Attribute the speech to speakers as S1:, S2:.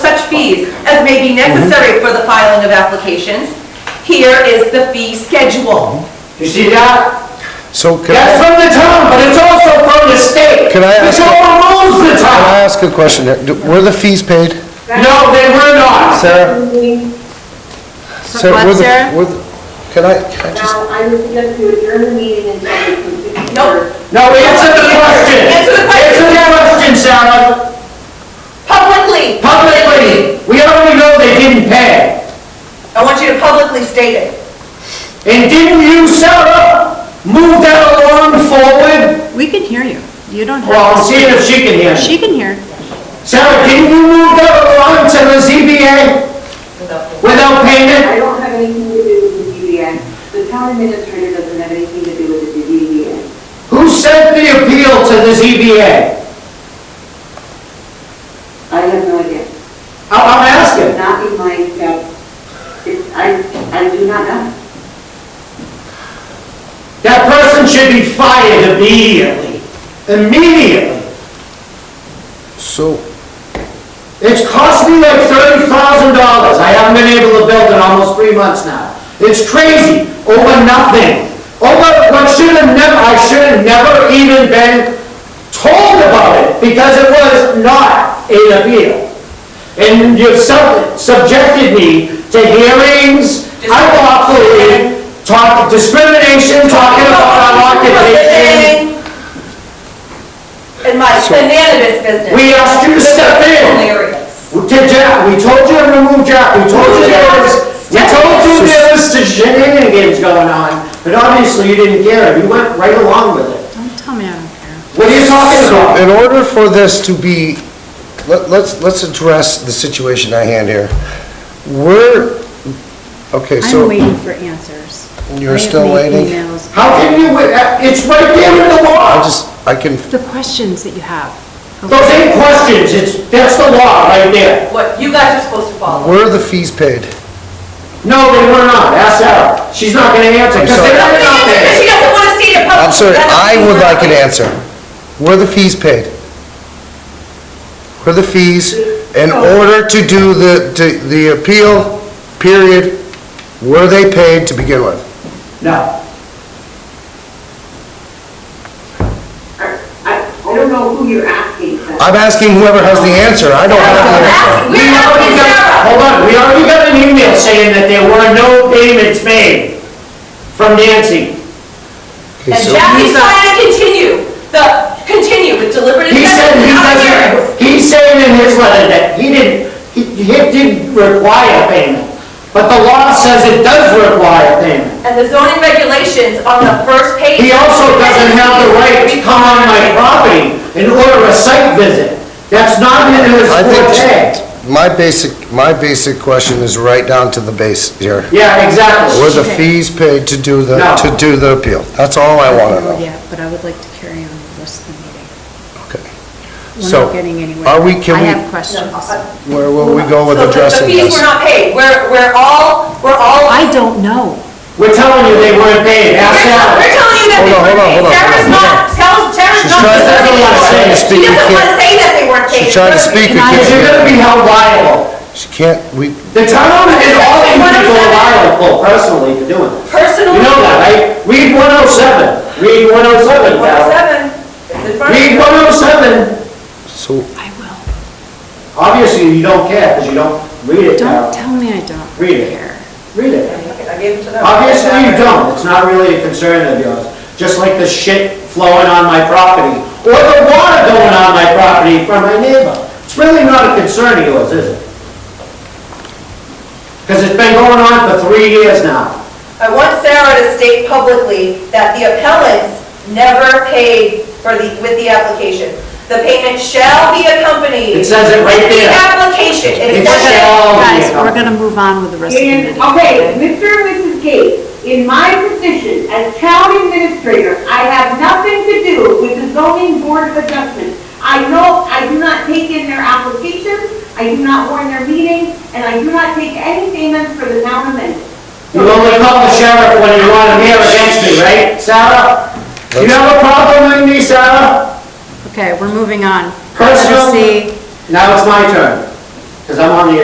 S1: as may be necessary for the filing of applications. Here is the fee schedule.
S2: You see that?
S3: So can
S2: That's
S3: I,
S2: from the town, but it's also from the state.
S3: Can I ask
S2: It's
S3: you-
S2: all rules the
S3: can I
S2: town.
S3: ask a question here? Do- Were the fees paid?
S2: No, they were not.
S3: Sarah? Sarah,
S1: what,
S3: were the-
S1: Sarah?
S3: were the- Can I, can I just,
S4: Now, I'm going to adjourn the meeting until we can...
S1: Nope.
S2: No, answer the question.
S1: Answer the question.
S2: Answer the question, Sarah.
S1: Publicly,
S2: Publicly, we already know they didn't pay.
S1: I want you to publicly state it.
S2: And didn't you, Sarah, move that along forward?
S5: We can hear you. You don't
S2: Well, I'll
S5: have
S2: see if she can hear me.
S5: She can hear.
S2: Sarah, didn't you move that along to the ZBA without payment?
S4: I don't have anything to do with the DDA. The town administrator doesn't have anything to do with the DDA.
S2: Who sent the appeal to the ZBA?
S4: I have no idea.
S2: I- I'm
S4: It's
S2: asking.
S4: not in my, uh, it's, I, I do not know.
S2: That person should be fired immediately. Immediately.
S3: so,
S2: It's cost me like thirty thousand dollars. I haven't been able to build in almost three months now. It's crazy, over nothing. Over what should have never, I should have never even been told about it because it was not an appeal. And you've sub- subjected me to hearings, unlawfully, talk, discrimination, talking about our occupation.
S1: In my cannabis business.
S2: We asked you to step in.
S1: Hilarious.
S2: We did Jack, we told you to remove Jack, we told you there was, we told you there was the shenanigans going on, but obviously you didn't care, you went right along with it.
S5: Don't tell me I don't care.
S2: What are you talking
S3: so
S2: about?
S3: in order for this to be, let- let's, let's address the situation at hand here. We're, okay,
S5: I'm
S3: so
S5: waiting for answers.
S3: You're
S5: I have
S3: still
S5: made
S3: waiting?
S5: emails.
S2: How can you, wi- uh, it's right there in the
S3: I
S2: law,
S3: just, I can,
S5: The questions that you have.
S2: those eight questions, it's, that's the law right there.
S1: What you guys are supposed to follow.
S3: were the fees paid?
S2: No, they were not, ask Sarah, she's not gonna answer, because
S3: sorry.
S1: She
S2: they were not
S1: doesn't answer, she
S2: there.
S1: doesn't want to state it publicly.
S3: I'm sorry,
S1: That's what
S3: I
S1: she's
S3: would
S1: not
S3: like an
S1: doing.
S3: answer. Were the fees paid? Were the fees, in order to do the, to- the appeal period, were they paid to begin with?
S2: No,
S4: I, I I don't know who you're asking, but...
S3: I'm asking whoever has the answer, I don't have the answer.
S1: We're
S2: we
S1: asking
S2: already got,
S1: Sarah.
S2: hold on, we already got an email saying that there were no payments made from Nancy.
S3: Okay,
S1: And
S3: so-
S1: Jackie's trying to continue, the, continue with deliberate
S2: He
S1: indifference
S2: said he
S1: without hearings.
S2: doesn't, he's saying in his letter that he didn't, he he didn't require payment, but the law says it does require payment.
S1: And the zoning regulations on the first page.
S2: He also doesn't have the right to come on my property and order a site visit. That's not in his
S3: I
S2: forte.
S3: think, my basic, my basic question is right down to the base here.
S2: Yeah,
S3: Were
S2: exactly.
S3: the fees paid to do the,
S2: No.
S3: to do the appeal? That's all I want to know.
S5: Yeah, but I would like to carry on the rest of the meeting.
S3: Okay.
S5: We're
S3: So,
S5: not getting anywhere.
S3: are we- can
S5: I
S3: we-
S5: have questions.
S3: Where will we go with
S1: So the-
S3: addressing
S1: The fees
S3: this?
S1: were not paid, we're, we're all, we're all.
S5: I don't know.
S2: We're telling you they weren't paid,
S1: We're
S2: ask
S1: tell- we're
S2: Sarah.
S1: telling you that
S3: Hold
S1: they
S3: on, hold
S1: weren't
S3: on,
S1: paid.
S3: hold on,
S1: Sarah's
S3: hold on.
S1: not, Sarah's, Sarah's
S3: She's
S1: not.
S3: trying-
S1: deserving
S2: Doesn't wanna
S1: of it.
S2: say it.
S1: She
S3: Speak, you
S1: doesn't want to
S3: can't-
S1: say that they weren't paid.
S3: She's trying to speak, you
S5: And I-
S2: Because you're
S3: can't,
S2: gonna be held liable.
S3: she can't, we,
S2: The town is all these people liable personally for doing it.
S1: Personally.
S2: You know that, right? Read 107, read 107, Val.
S1: 107, it's oh in front of
S2: Read
S1: you.
S2: 107,
S3: so,
S5: I will.
S2: obviously you don't care, because you don't read it
S5: Don't
S2: now.
S5: tell me I don't
S2: Read it.
S5: care.
S2: Read it.
S1: Okay, I gave it to them.
S2: Obviously you don't, it's not really a concern of yours, just like the shit flowing on my property, or the water going on my property from my neighbor. It's really not a concern of yours, is it? Because it's been going on for three years now.
S1: I want Sarah to state publicly that the appellants never paid for the, with the application. The payment shall be accompanied.
S2: It says it right
S1: With
S2: there.
S1: the application. It
S2: It
S1: says it.
S2: shall be
S5: Guys, we're
S2: accomplished.
S5: gonna move on with the rest of the
S4: And,
S5: meeting.
S4: okay, Mr. and Mrs. Gates, in my position as town administrator, I have nothing to do with the zoning board of adjustment. I know, I do not take in their applications, I do not warn their meetings, and I do not take any payments for the town amendment.
S2: You only call the sheriff when you want him here against me, right, Sarah? You have a problem with me, Sarah?
S5: Okay, we're moving on.
S2: Personal-
S5: Letter C.
S2: Now it's my turn, because I'm on the